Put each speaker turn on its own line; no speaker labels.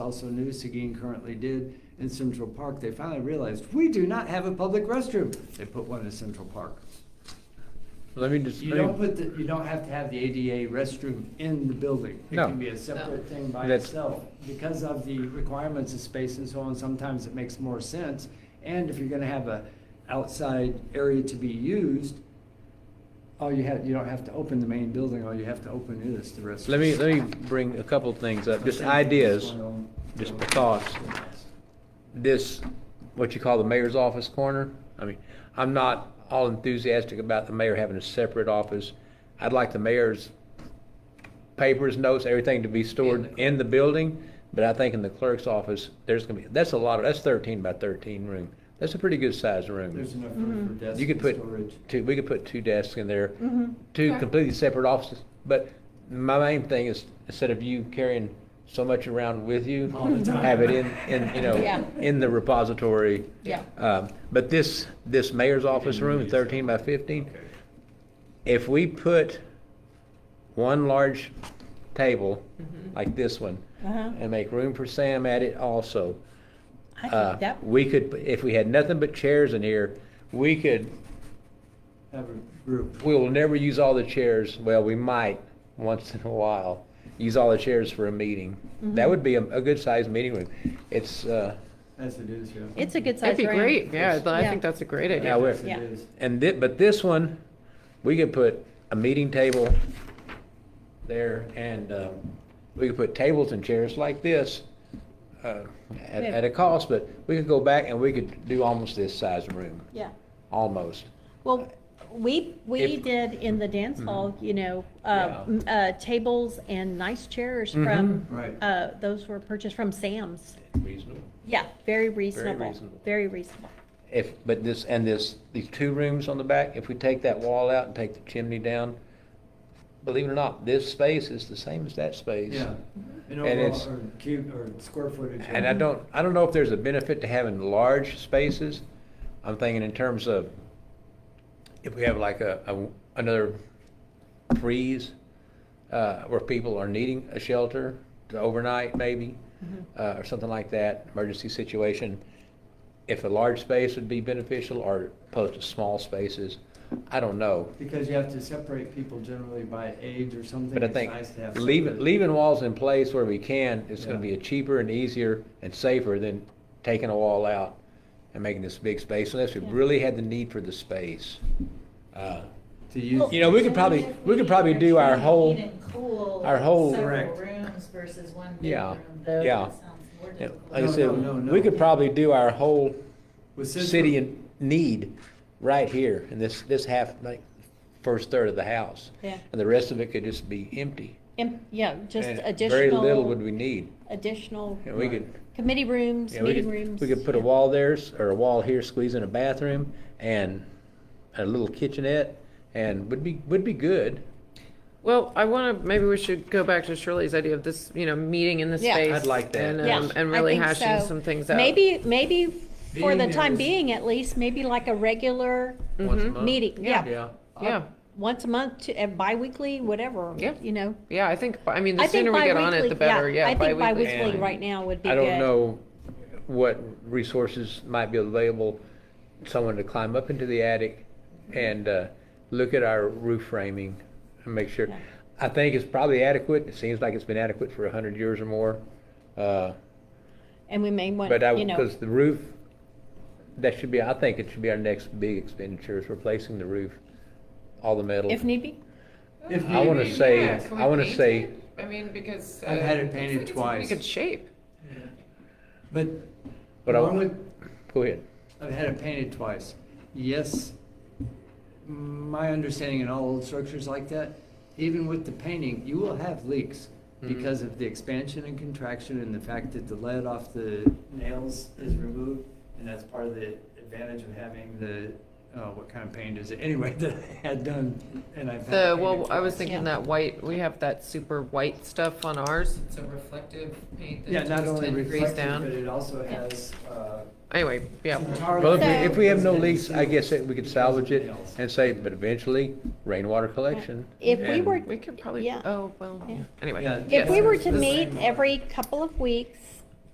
also New Seguin currently did in Central Park, they finally realized, we do not have a public restroom. They put one in Central Park.
Let me just,
You don't put the, you don't have to have the ADA restroom in the building. It
No.
can be a separate thing by
That's-
itself. Because of the requirements of space and so on, sometimes it makes more sense. And if you're gonna have a outside area to be used, all you have, you don't have to open the main building, all you have to open is the restroom.
let me, let me bring a couple of things up, just
Same thing with this
ideas.
one on-
just thoughts. This, what you call the mayor's office corner, I mean, I'm not all enthusiastic about the mayor having a separate office. I'd like the mayor's papers, notes, everything to be stored in the building, but I think in the clerk's office, there's gonna be, that's a lot, of that's thirteen by thirteen room. That's a pretty good sized room.
There's enough
Mm-hmm.
room for desks
You could
and
put
storage.
two, we could put two desks in there,
Mhm.
two
Sure.
completely separate offices. But my main thing is, instead of you carrying so much around with you,
All the time.
have it in, in, you know,
Yeah.
in the repository.
Yeah.
Um, But this, this mayor's office room, thirteen by fifteen, if we put one large table like this one
Mm-hmm. Uh-huh.
and make room for Sam at it also,
I
uh,
think that,
we could, if we had nothing but chairs in here, we could
Have a group.
We will never use all the chairs, well, we might, once in a while, use all the chairs for a meeting. That would be a, a good sized meeting room. It's, uh,
As it is, yeah.
it's a good size
That'd be
room.
great, yeah, but I
Yeah.
think that's a great
Yeah,
idea.
we're-
Yes, it
Yeah.
is.
and thi- but this one, we could put a meeting table there and, um, we could put tables and chairs like this, uh, at, at a cost, but we could go back and we could do almost this size room,
Yeah,
almost.
well, we, we
If- Mm-hmm.
did in the dance hall, you know, uh,
Yeah. Mm-hmm.
m- uh, tables and nice chairs from,
Right.
uh, those were purchased from Sam's.
Reasonable.
Yeah, very reasonable,
reasonable.
very reasonable.
If, but this, and this, these two rooms on the back, if we take that wall out and take the chimney down, believe it or not, this space is the same as that space.
Yeah. And
And
overall,
it's-
or cube, or square footage.
And
or-
I don't, I don't know if there's a benefit to having large spaces. I'm thinking in terms of, if we have like a, a- another freeze, uh, where people are needing a shelter to overnight maybe, uh, or something like that, emergency situation. If a large space would be beneficial or opposed to small spaces, I don't know.
Because you have to separate people generally by age or something.
But I
it's
think
nice to have
leaving,
separate-
leaving walls in place where we can, it's gonna
Yeah.
be a cheaper and easier and safer than taking a wall out and making this big space unless we
Yeah.
really had the need for the space. Uh,
To use,
You know, we could probably, we could probably do our whole, our whole-
Correct.
Several rooms versus one big
Yeah,
room, though,
yeah.
that sounds more
yeah,
difficult.
like I
No, no,
said,
no,
we
no.
could probably do our whole
with Central-
city in need right here in this, this half, like, first third of the house.
Yeah.
And the rest of it could just be empty.
And, yeah, just
And Very little would
additional,
we need.
additional
And we could,
committee rooms,
Yeah, we
meeting
could,
rooms.
we could put a
yeah.
wall there, s- or a wall here, squeeze in a bathroom, and a little kitchenette, and would be, would be good.
Well, I want to, maybe we should go back to Shirley's idea of this, you know, meeting in the
Yeah.
space.
I'd like that.
and,
Yeah,
um, And
I
really
think
hashing
so.
some things out.
Maybe, maybe for
Being
the
there
time
is-
being at least, maybe like a regular
Once a month.
meeting,
Yeah.
Mm-hmm. yeah.
Yeah,
Yeah,
Once a month, to- uh, bi-weekly, whatever,
Yeah.
you know.
yeah, I think, I mean,
I
the
think
sooner we get on it,
bi-weekly-
the better, yeah.
I think bi-weekly
And
right now would be
I
good.
don't know what resources might be available, someone to climb up into the attic and, uh, look at our roof framing and make sure.
Yeah.
I think it's probably adequate, it seems like it's been adequate for a hundred years or more, uh,
And we may want,
But I,
you know,
because the roof, that should be, I think it should be our next big expenditure is replacing the roof, all the metal.
if need be,
If
I wanna
needed.
say- I wanna say-
I mean, because.
I've had it painted
It's
twice,
in good shape.
but
But I-
along with,
Go ahead.
I've had it painted twice. Yes, my understanding in all old structures like that, even with the painting, you will have leaks
Mhm.
Mm-hmm.
because of the expansion and contraction and the fact that the lead off the nails is removed. And that's part of the advantage of having the, uh, what kind of paint is it? Anyway, that I had done and I've had. it
The,
painted
well, I was
twice.
thinking
Yeah.
that white, we have that super white stuff on ours. It's a reflective paint
Yeah, not only
degrees
reflective, but
down.
it also
Yeah.
has, uh,
Anyway, yeah.
Well, if we,
So-
if we have no leaks, I guess that we could salvage it and say, but eventually rainwater collection.
if we
and-
were,
We could probably,
Yeah.
oh, well,
Yeah.
anyway.
Yeah.
if we were to
Yeah.
meet every couple of weeks